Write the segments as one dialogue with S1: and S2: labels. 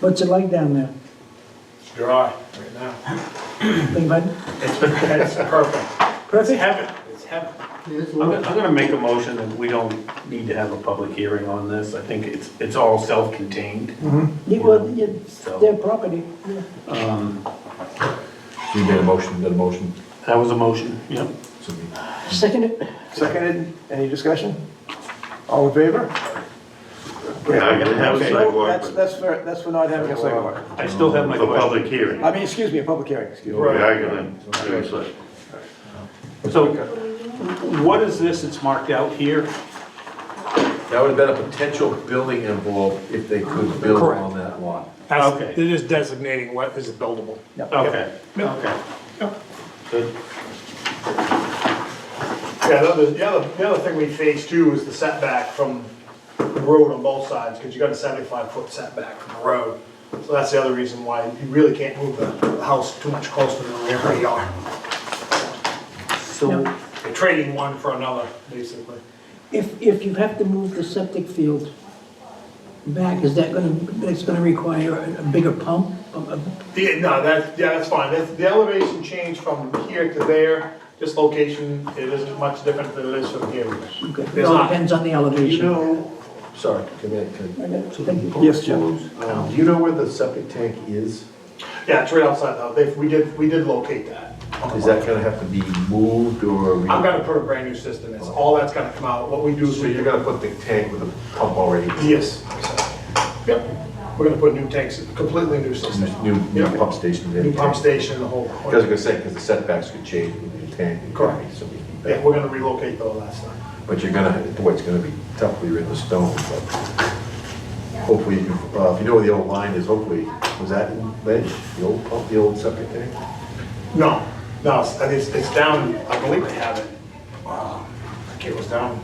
S1: What's it like down there?
S2: It's dry right now.
S1: Big bud?
S2: It's, it's perfect. It's
S1: Perfect?
S2: heaven, it's heaven.
S3: I'm gonna, I'm gonna make a motion that we don't need to have a public hearing on this. I think it's, it's all self-contained.
S1: Yeah, well, it's
S3: So-
S1: their property. yeah.
S3: Um,
S4: You made a motion, you got a motion,
S3: that was a motion, yep.
S4: so we-
S1: Second it?
S5: Seconded, any discussion? All in favor?
S6: We're not gonna have a
S5: Okay,
S6: sidewalk,
S5: That's,
S6: but
S5: that's for, that's for not having a sidewalk.
S3: I still have my
S6: a public
S3: question.
S6: hearing.
S5: I mean, excuse me, a public hearing, excuse me.
S6: We are gonna do a sidewalk.
S3: So what is this that's marked out here?
S4: That would have been a potential building envelope if they could build on that lot.
S3: Okay.
S7: That's, they're just designating what is buildable.
S3: Okay, okay. Good.
S2: Yeah, the other, the other, the other thing we faced too was the setback from the road on both sides, because you got a seventy-five foot setback from the road. So that's the other reason why you really can't move the the house too much closer to the rear yard.
S3: So
S2: You're trading one for another, basically.
S1: If, if you have to move the septic field back, is that gonna, that's gonna require a a bigger pump? A- a-
S2: Yeah, no, that, yeah, that's fine. That's- The elevation change from here to there, this location, it isn't much different than it is from here.
S1: okay. It
S2: There's
S1: all
S2: not-
S1: depends on the elevation.
S4: Sorry, come in, can,
S1: Thank you.
S5: Yes, Jim.
S4: um, do you know where the septic tank is?
S2: Yeah, it's right outside though. They, we did, we did locate that. on the
S4: Is that gonna have to be moved or? we-
S2: I'm gonna put a brand new system, it's all that's gonna come out, what we do is
S4: So
S2: we.
S4: you're gonna put the tank with a pump already,
S2: Yes. Yep, we're gonna put new tanks, completely new system.
S4: new, new
S2: Yep.
S4: pump station?
S2: New pump station, the whole.
S4: Because I was gonna say, because the setbacks could change with the tank.
S2: Correct.
S4: So we keep
S2: Yeah,
S4: that.
S2: we're gonna relocate though last time.
S4: But you're gonna, boy, it's gonna be tough, we are in the stone, but hopefully, you can- uh, if you know where the old line is, hopefully, was that in ledge, the old pump, the old septic tank?
S2: No, no, it's, I think it's- it's down, I believe they have it. Wow, I think it was down,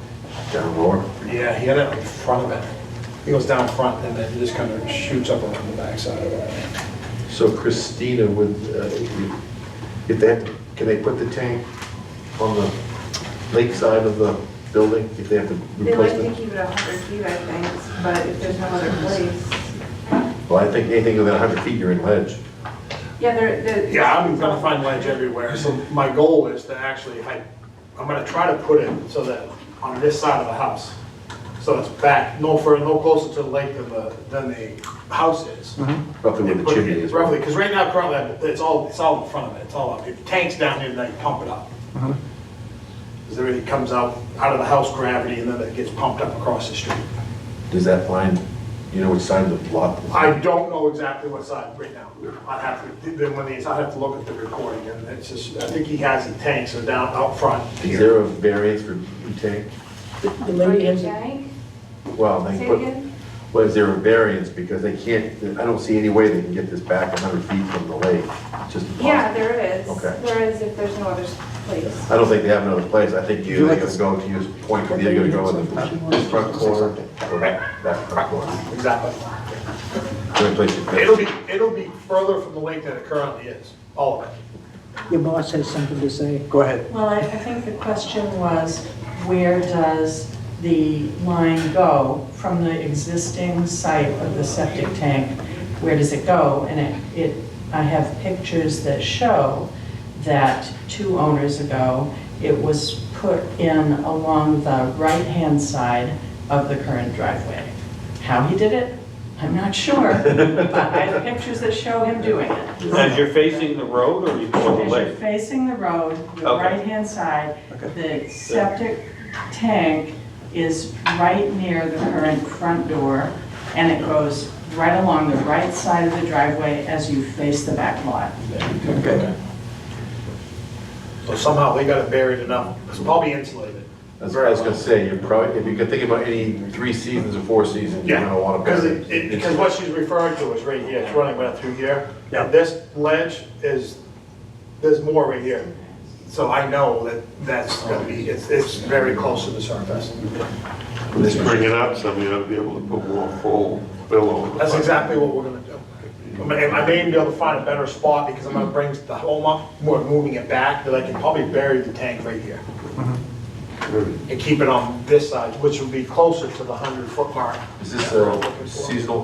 S4: Down lower?
S2: yeah, he had it in front of it. He goes down front and then it just kind of shoots up around the backside of it.
S4: So Christina would, uh, if they have, to- can they put the tank on the lakeside of the building if they have to
S8: They
S4: replace
S8: like to
S4: it?
S8: keep it a hundred feet, I think, but if there's no other place,
S4: Well, I think anything within 100 feet, you're in ledge.
S8: yeah, there, the.
S2: Yeah, I'm gonna find ledge everywhere, so my goal is to actually, I, I'm gonna try to put it so that on this side of the house, so it's back, no further, no closer to the lake than the, than the house is.
S4: Roughly where Mm-hmm. the
S2: Put it
S4: chimney is.
S2: Roughly, because right now currently, it's all, it's all in front of it, it's all up, if tank's down here, then you pump it up.
S4: Mm-hmm.
S2: Because then it comes out, out of the house gravity, and then it gets pumped up across the street.
S4: Does that line, you know which side of the lot?
S2: I don't know exactly what side right now. I'd have to, then when these, I'd have to look at the recording, and it's just, I think he has the tanks are down out front
S4: Is
S2: here.
S4: there a variance for tank?
S1: The
S8: Are
S1: lady
S8: you
S1: has,
S8: kidding?
S4: Well,
S8: Say
S4: they
S8: it
S4: put,
S8: again?
S4: well, is there a variance because they can't, I don't see any way they can get this back 100 feet from the lake. It's just impossible.
S8: Yeah, there is.
S4: Okay.
S8: There is if there's no other place.
S4: I don't think they have another place, I think
S5: you
S4: you're
S5: like
S4: gonna
S5: to-
S4: go to your point, you're gonna go in the front corner, or that, that front corner.
S2: Exactly.
S4: The only place you
S2: It'll
S4: fit.
S2: be, it'll be further from the lake than it currently is, all of it.
S1: your boss has something to say.
S5: Go ahead.
S9: Well, I I think the question was, where does the line go from the existing site of the septic tank? Where does it go? And it, it, I have pictures that show that two owners ago, it was put in along the right-hand side of the current driveway. How he did it, I'm not sure, but I have pictures that show him doing it.
S3: as you're facing the road or you go the
S9: As you're
S3: lake?
S9: facing the road, your
S3: Okay.
S9: right-hand side, the septic tank is right near the current front door, and it goes right along the right side of the driveway as you face the back lot.
S5: Okay.
S2: So somehow they got it buried enough, it's probably insulated.
S4: That's what I was gonna say, you're probably, if you could think about any three seasons or four seasons, you're gonna wanna.
S2: Because it, it- because what she's referring to is right here, it's running right through here.
S5: Yeah.
S2: And this ledge is, there's more right here. So I know that that's gonna be, it's, it's very close to the surface.
S4: This
S6: Bring it up, so we ought to be able to put more full fill over the.
S2: That's
S6: front.
S2: exactly what we're gonna do. I may- I may even be able to find a better spot because I'm gonna bring the home up, we're moving it back, that I can probably bury the tank right here.
S4: Mm-hmm.
S2: And keep it on this side, which would be closer to the hundred foot mark.
S4: Is this
S2: that we're
S4: a
S2: looking for.
S4: seasonal